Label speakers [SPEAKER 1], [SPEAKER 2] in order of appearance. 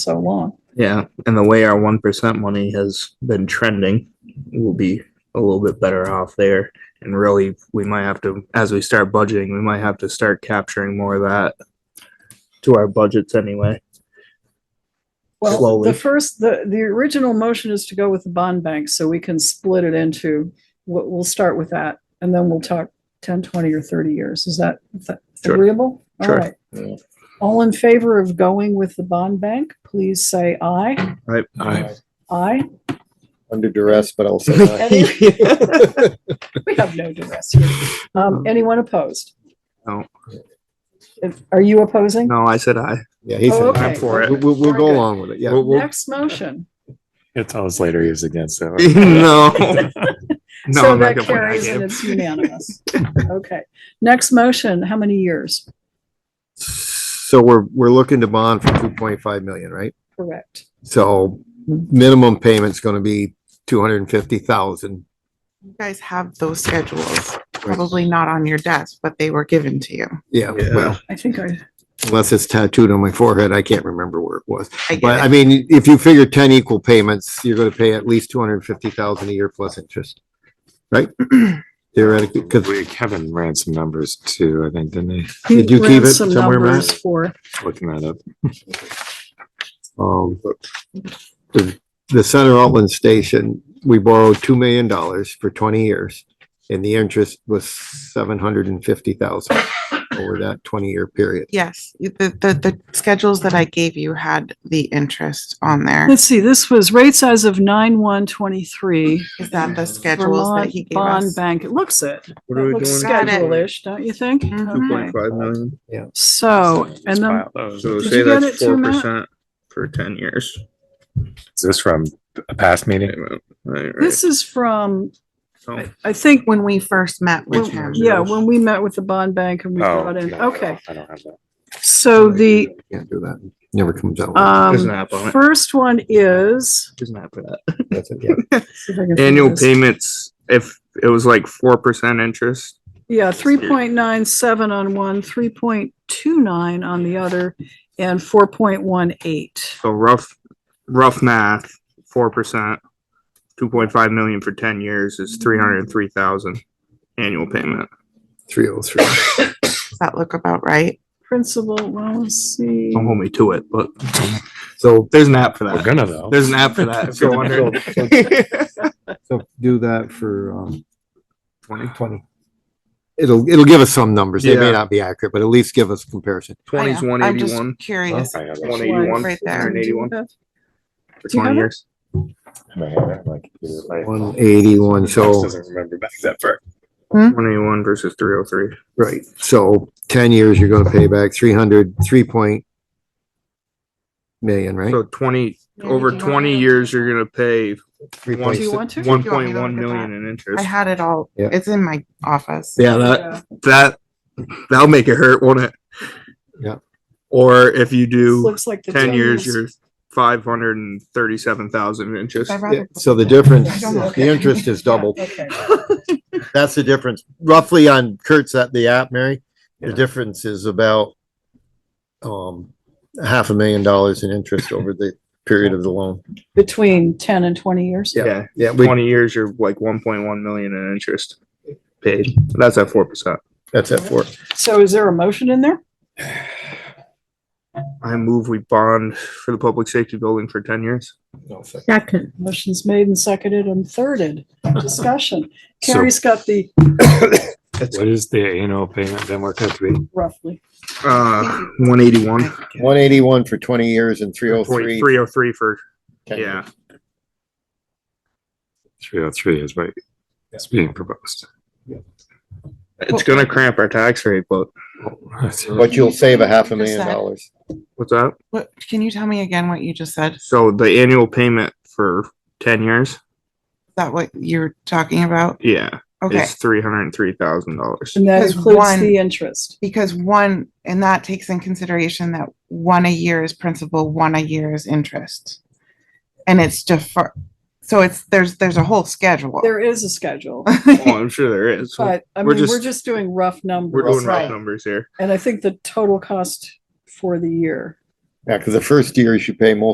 [SPEAKER 1] so long.
[SPEAKER 2] Yeah, and the way our one percent money has been trending, we'll be a little bit better off there. And really, we might have to, as we start budgeting, we might have to start capturing more of that to our budgets anyway.
[SPEAKER 1] Well,
[SPEAKER 2] Slowly.
[SPEAKER 1] the first, the, the original motion is to go with the bond bank, so we can split it into, we'll, we'll start with that. And then we'll talk 10, 20, or 30 years. Is that is that
[SPEAKER 2] Sure.
[SPEAKER 1] agreeable? All
[SPEAKER 2] Sure.
[SPEAKER 1] right. All in favor of going with the bond bank, please say aye.
[SPEAKER 2] Right?
[SPEAKER 1] Aye.
[SPEAKER 3] Under duress, but I'll say aye.
[SPEAKER 1] We have no duress here. Um, anyone opposed?
[SPEAKER 2] No.
[SPEAKER 1] If- Are you opposing?
[SPEAKER 2] No, I said I.
[SPEAKER 3] Yeah, he
[SPEAKER 1] Oh,
[SPEAKER 3] said
[SPEAKER 1] okay.
[SPEAKER 3] aye.
[SPEAKER 2] I'm for
[SPEAKER 3] We'll,
[SPEAKER 2] it.
[SPEAKER 3] we'll- we'll go
[SPEAKER 1] Very good.
[SPEAKER 3] along with it, yeah.
[SPEAKER 2] We'll- we'll-
[SPEAKER 1] Next motion.
[SPEAKER 4] He'll tell us later he was against that.
[SPEAKER 2] No. No,
[SPEAKER 1] So
[SPEAKER 2] I'm
[SPEAKER 1] that
[SPEAKER 2] not gonna put I
[SPEAKER 1] carries and
[SPEAKER 2] gave.
[SPEAKER 1] it's unanimous. Okay. Next motion, how many years?
[SPEAKER 3] So we're, we're looking to bond for two point five million, right?
[SPEAKER 1] Correct.
[SPEAKER 3] So minimum payment's gonna be two hundred and fifty thousand.
[SPEAKER 5] You guys have those schedules, probably not on your desk, but they were given to you.
[SPEAKER 3] Yeah,
[SPEAKER 2] Yeah.
[SPEAKER 3] well,
[SPEAKER 1] I think I,
[SPEAKER 3] unless it's tattooed on my forehead, I can't remember where it was.
[SPEAKER 5] I get
[SPEAKER 3] But
[SPEAKER 5] it.
[SPEAKER 3] I mean, if you figure ten equal payments, you're gonna pay at least two hundred and fifty thousand a year plus interest, right? Theoretically, because
[SPEAKER 4] We, Kevin ran some numbers too, I think, didn't he?
[SPEAKER 1] he
[SPEAKER 3] Did you keep
[SPEAKER 1] ran
[SPEAKER 3] it
[SPEAKER 1] some
[SPEAKER 3] somewhere, Matt?
[SPEAKER 1] numbers for,
[SPEAKER 4] Looking that up.
[SPEAKER 3] Um, the, the Center Altland Station, we borrowed two million dollars for twenty years. And the interest was seven hundred and fifty thousand over that twenty-year period.
[SPEAKER 5] Yes, you- the, the, the schedules that I gave you had the interest on there.
[SPEAKER 1] let's see, this was rate size of nine one twenty-three.
[SPEAKER 5] Is that the schedules that
[SPEAKER 1] Vermont
[SPEAKER 5] he gave
[SPEAKER 1] Bond
[SPEAKER 5] us?
[SPEAKER 1] Bank, it looks it.
[SPEAKER 2] What are we
[SPEAKER 1] It looks
[SPEAKER 2] doing?
[SPEAKER 5] Got it.
[SPEAKER 1] schedule-ish, don't you think?
[SPEAKER 5] Mhm.
[SPEAKER 1] Okay.
[SPEAKER 2] Five million.
[SPEAKER 1] So, Oh, and then,
[SPEAKER 2] So
[SPEAKER 1] Did
[SPEAKER 2] say
[SPEAKER 1] you get
[SPEAKER 2] that's
[SPEAKER 1] it too,
[SPEAKER 2] four
[SPEAKER 1] Matt?
[SPEAKER 2] percent for ten years.
[SPEAKER 4] Is this from a past meeting?
[SPEAKER 2] Right, right.
[SPEAKER 1] this is from,
[SPEAKER 2] So-
[SPEAKER 1] I I think,
[SPEAKER 5] When we first met with
[SPEAKER 2] Which
[SPEAKER 5] him.
[SPEAKER 2] one?
[SPEAKER 1] yeah, when we met with the bond bank and we
[SPEAKER 4] Oh,
[SPEAKER 1] brought in,
[SPEAKER 4] no, I don't-
[SPEAKER 1] okay.
[SPEAKER 4] I don't have that.
[SPEAKER 1] So the,
[SPEAKER 3] Can't do that. Never comes out.
[SPEAKER 2] There's an
[SPEAKER 1] um,
[SPEAKER 2] app on it.
[SPEAKER 1] first one is.
[SPEAKER 2] Isn't that for that?
[SPEAKER 3] That's it, yeah.
[SPEAKER 1] see if I can find
[SPEAKER 2] annual
[SPEAKER 1] this.
[SPEAKER 2] payments, if it was like four percent interest,
[SPEAKER 1] Yeah, three point nine seven on one, three point two nine on the other, and four point one eight.
[SPEAKER 2] so rough, rough math, four percent, two point five million for ten years is three hundred and three thousand annual payment.
[SPEAKER 3] Three oh three.
[SPEAKER 5] Does that look about right?
[SPEAKER 1] Principal, well, let's see.
[SPEAKER 2] Don't hold me to it, but
[SPEAKER 3] So,
[SPEAKER 2] there's an app for
[SPEAKER 4] We're
[SPEAKER 2] that.
[SPEAKER 4] gonna though.
[SPEAKER 2] There's an app for that. If you're wondering,
[SPEAKER 3] so do that for, um,
[SPEAKER 2] 20,
[SPEAKER 5] Oh,
[SPEAKER 3] twenty. It'll, it'll give us some numbers. They
[SPEAKER 2] Yeah.
[SPEAKER 3] may not be accurate, but at least give us comparison.
[SPEAKER 2] 20 is
[SPEAKER 5] I know.
[SPEAKER 2] one
[SPEAKER 5] Oh, I'm just
[SPEAKER 2] eighty-one
[SPEAKER 5] Curious.
[SPEAKER 3] Oh.
[SPEAKER 4] I have it.
[SPEAKER 2] One eighty. 181,
[SPEAKER 5] Right there.
[SPEAKER 2] 181.
[SPEAKER 1] Do
[SPEAKER 2] for
[SPEAKER 1] you have
[SPEAKER 2] twenty
[SPEAKER 1] it?
[SPEAKER 2] years.
[SPEAKER 4] I have it, like, it's like-
[SPEAKER 3] One eighty-one, so.
[SPEAKER 4] Doesn't remember back that far.
[SPEAKER 5] Hmm?
[SPEAKER 2] One eighty-one versus three oh three.
[SPEAKER 3] Right, so ten years, you're gonna pay back three hundred, three point million, right?
[SPEAKER 2] So twenty,
[SPEAKER 5] Yeah,
[SPEAKER 2] over
[SPEAKER 5] do you want
[SPEAKER 2] twenty
[SPEAKER 5] to-
[SPEAKER 2] years, you're gonna pay
[SPEAKER 3] Three
[SPEAKER 2] one,
[SPEAKER 3] point
[SPEAKER 1] Do you
[SPEAKER 3] six.
[SPEAKER 1] want to?
[SPEAKER 2] one
[SPEAKER 5] you want me
[SPEAKER 2] point
[SPEAKER 5] to
[SPEAKER 2] one
[SPEAKER 5] look at
[SPEAKER 2] million
[SPEAKER 5] that?
[SPEAKER 2] in
[SPEAKER 5] I
[SPEAKER 2] interest.
[SPEAKER 5] had it all.
[SPEAKER 3] Yeah.
[SPEAKER 5] It's in my office.
[SPEAKER 3] Yeah, that,
[SPEAKER 1] Yeah.
[SPEAKER 2] that that'll make it hurt, won't it?
[SPEAKER 3] Yeah.
[SPEAKER 2] Or if you
[SPEAKER 1] This
[SPEAKER 2] do
[SPEAKER 1] Looks like the.
[SPEAKER 2] ten years, you're five hundred and thirty-seven thousand interest.
[SPEAKER 5] I'd
[SPEAKER 3] yeah,
[SPEAKER 5] rather-
[SPEAKER 3] so the difference,
[SPEAKER 5] I
[SPEAKER 3] is
[SPEAKER 5] don't look
[SPEAKER 3] the
[SPEAKER 5] at it.
[SPEAKER 3] interest is doubled.
[SPEAKER 1] Okay.
[SPEAKER 3] That's the difference. Roughly on Kurt's at the app, Mary, the
[SPEAKER 2] Yeah.
[SPEAKER 3] difference is about um, half a million dollars in interest over the period of the loan.
[SPEAKER 1] Between ten and twenty years?
[SPEAKER 3] Yeah.
[SPEAKER 2] Yeah,
[SPEAKER 3] Yeah, we,
[SPEAKER 2] twenty years, you're like one point one million in interest paid. That's at four percent.
[SPEAKER 3] that's it for it.
[SPEAKER 1] So is there a motion in there?
[SPEAKER 2] I move we bond for the public safety building for ten years.
[SPEAKER 6] Second,
[SPEAKER 1] Motion's made and seconded and thirded. Discussion.
[SPEAKER 4] So-
[SPEAKER 1] Carrie's got the
[SPEAKER 4] What is the annual payment then work out to be?
[SPEAKER 1] roughly.
[SPEAKER 2] Uh, one eighty-one.
[SPEAKER 3] One eighty-one for twenty years and three oh three.
[SPEAKER 2] Three oh three for, yeah,
[SPEAKER 4] Three oh three is what is being proposed.
[SPEAKER 2] it's gonna cramp our tax rate, but
[SPEAKER 3] But you'll save a half a
[SPEAKER 5] Just
[SPEAKER 3] million
[SPEAKER 5] that.
[SPEAKER 3] dollars.
[SPEAKER 2] what's that?
[SPEAKER 5] What, can you tell me again what you just said? Is
[SPEAKER 2] So the annual payment for ten years,
[SPEAKER 5] that what you're talking about?
[SPEAKER 2] yeah.
[SPEAKER 5] Okay.
[SPEAKER 2] It's three hundred and three thousand dollars.
[SPEAKER 1] And that
[SPEAKER 5] Because
[SPEAKER 1] includes
[SPEAKER 5] one-
[SPEAKER 1] the interest.
[SPEAKER 5] Because one, and that takes in consideration that one a year is principal, one a year is interest. And it's defer, so it's, there's, there's a whole schedule.
[SPEAKER 1] There is a schedule,
[SPEAKER 2] Oh, I'm sure there is.
[SPEAKER 1] but I
[SPEAKER 2] We're
[SPEAKER 1] mean, we're
[SPEAKER 2] just-
[SPEAKER 1] just doing rough numbers.
[SPEAKER 2] We're doing rough
[SPEAKER 5] Right.
[SPEAKER 2] numbers here.
[SPEAKER 1] And I think the total cost for the year
[SPEAKER 3] Yeah, because the first years you pay most